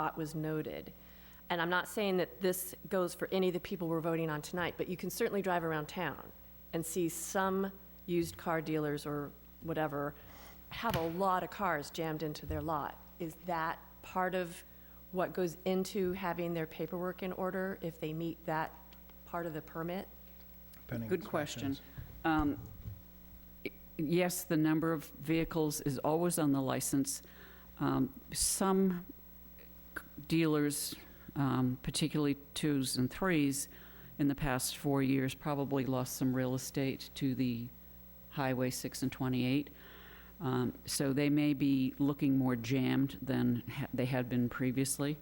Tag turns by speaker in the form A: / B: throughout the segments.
A: thought was noted. And I'm not saying that this goes for any of the people we're voting on tonight, but you can certainly drive around town and see some used car dealers or whatever have a lot of cars jammed into their lot. Is that part of what goes into having their paperwork in order if they meet that part of the permit?
B: Depending on
C: Good question.
B: circumstances.
C: Um, i- Yes, the number of vehicles is always on the license. Um, Some c- dealers, um, particularly twos and threes, in the past four years, probably lost some real estate to the Highway 6 and 28. Um, So they may be looking more jammed than ha- they had been previously.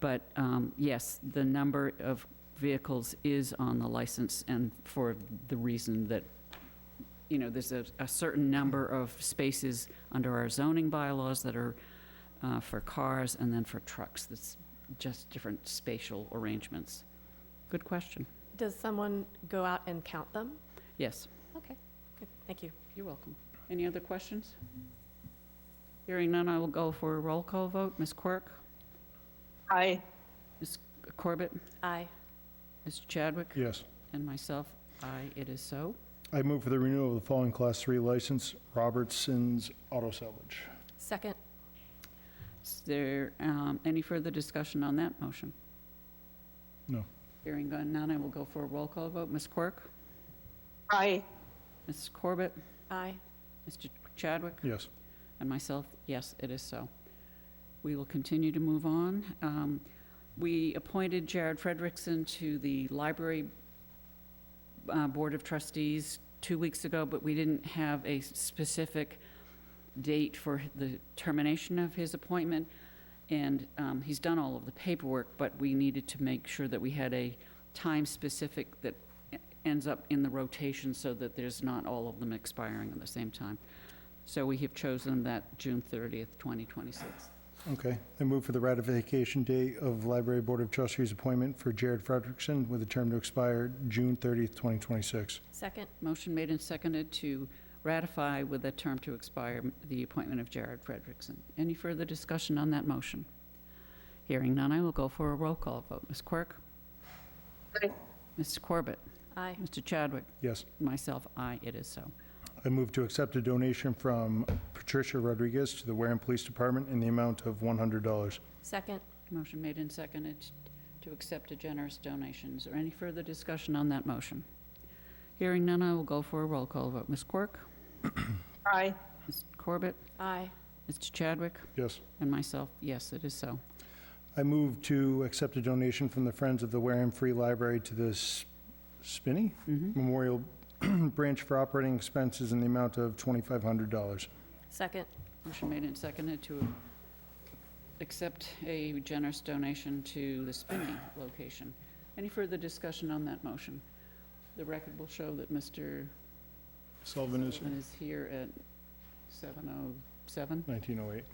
C: But um, yes, the number of vehicles is on the license and for the reason that, you know, there's a, a certain number of spaces under our zoning bylaws that are uh, for cars and then for trucks. That's just different spatial arrangements. Good question.
A: Does someone go out and count them?
C: Yes.
A: Okay, good, thank you.
C: You're welcome. Any other questions? Hearing none, I will go for a roll call vote. Ms. Quirk,
D: Aye.
C: Ms. Corbett,
A: Aye.
C: Mr. Chadwick,
B: Yes.
C: and myself. Aye, it is so.
B: I move for the renewal of the following Class 3 license, Robertson's Auto Salvage.
A: Second,
C: Is there um, any further discussion on that motion?
B: No.
C: Hearing none, I will go for a roll call vote. Ms. Quirk,
D: Aye.
C: Mrs. Corbett,
A: aye.
C: Mr. Chadwick,
B: Yes.
C: and myself, yes, it is so. We will continue to move on. Um, We appointed Jared Frederickson to the Library uh, Board of Trustees two weeks ago, but we didn't have a specific date for the termination of his appointment. And um, he's done all of the paperwork, but we needed to make sure that we had a time specific that ends up in the rotation so that there's not all of them expiring at the same time. So we have chosen that June 30th, 2026.
B: Okay. I move for the ratification date of Library Board of Trustees appointment for Jared Frederickson with a term to expire June 30th, 2026.
A: Second,
C: Motion made and seconded to ratify with a term to expire the appointment of Jared Frederickson. Any further discussion on that motion? Hearing none, I will go for a roll call vote. Ms. Quirk?
D: Aye.
C: Mr. Corbett?
A: aye.
C: Mr. Chadwick?
B: Yes.
C: Myself, aye, it is so.
B: I move to accept a donation from Patricia Rodriguez to the Wareham Police Department in the amount of $100.
A: Second,
C: Motion made and seconded to accept a generous donation. Is there any further discussion on that motion? Hearing none, I will go for a roll call vote. Ms. Quirk?
D: Aye.
C: Mr. Corbett?
A: aye.
C: Mr. Chadwick?
B: Yes.
C: And myself, yes, it is so.
B: I move to accept a donation from the Friends of the Wareham Free Library to the S- Spinney
C: Mhm.
B: Memorial Branch for operating expenses in the amount of $2,500.
A: Second,
C: Motion made and seconded to accept a generous donation to the Spinney location. Any further discussion on that motion? The record will show that Mr.
B: Sullivan is
C: Sullivan is here at 7:07,
B: 1908.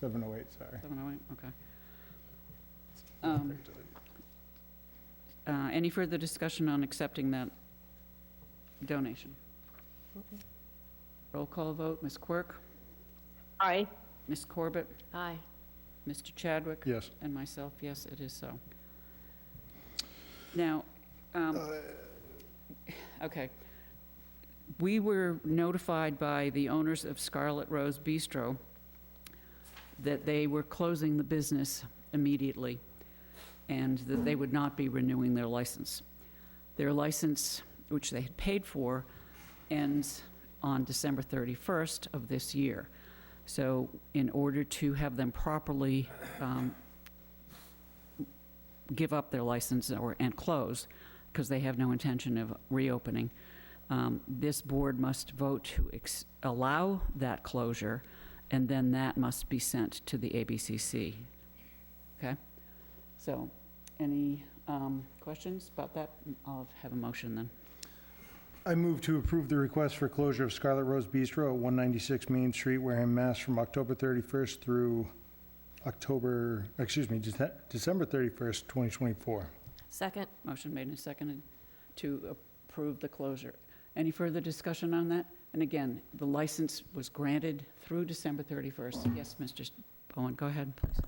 B: 708, sorry.
C: 7:08, okay. Um, Uh, Any further discussion on accepting that donation? Roll call vote, Ms. Quirk,
D: Aye.
C: Ms. Corbett,
A: aye.
C: Mr. Chadwick?
B: Yes.
C: And myself, yes, it is so. Now, um, okay. We were notified by the owners of Scarlet Rose Bistro that they were closing the business immediately and that they would not be renewing their license. Their license, which they had paid for, ends on December 31st of this year. So in order to have them properly um, give up their license or, and close, because they have no intention of reopening, um, this board must vote to ex- allow that closure, and then that must be sent to the ABCC. Okay? So, any um, questions about that? I'll have a motion then.
B: I move to approve the request for closure of Scarlet Rose Bistro at 196 Main Street, Wareham, Mass. from October 31st through October, excuse me, Dece- December 31st, 2024.
A: Second,
C: Motion made and seconded to approve the closure. Any further discussion on that? And again, the license was granted through December 31st. Yes, Mr. Bowen, go ahead, please.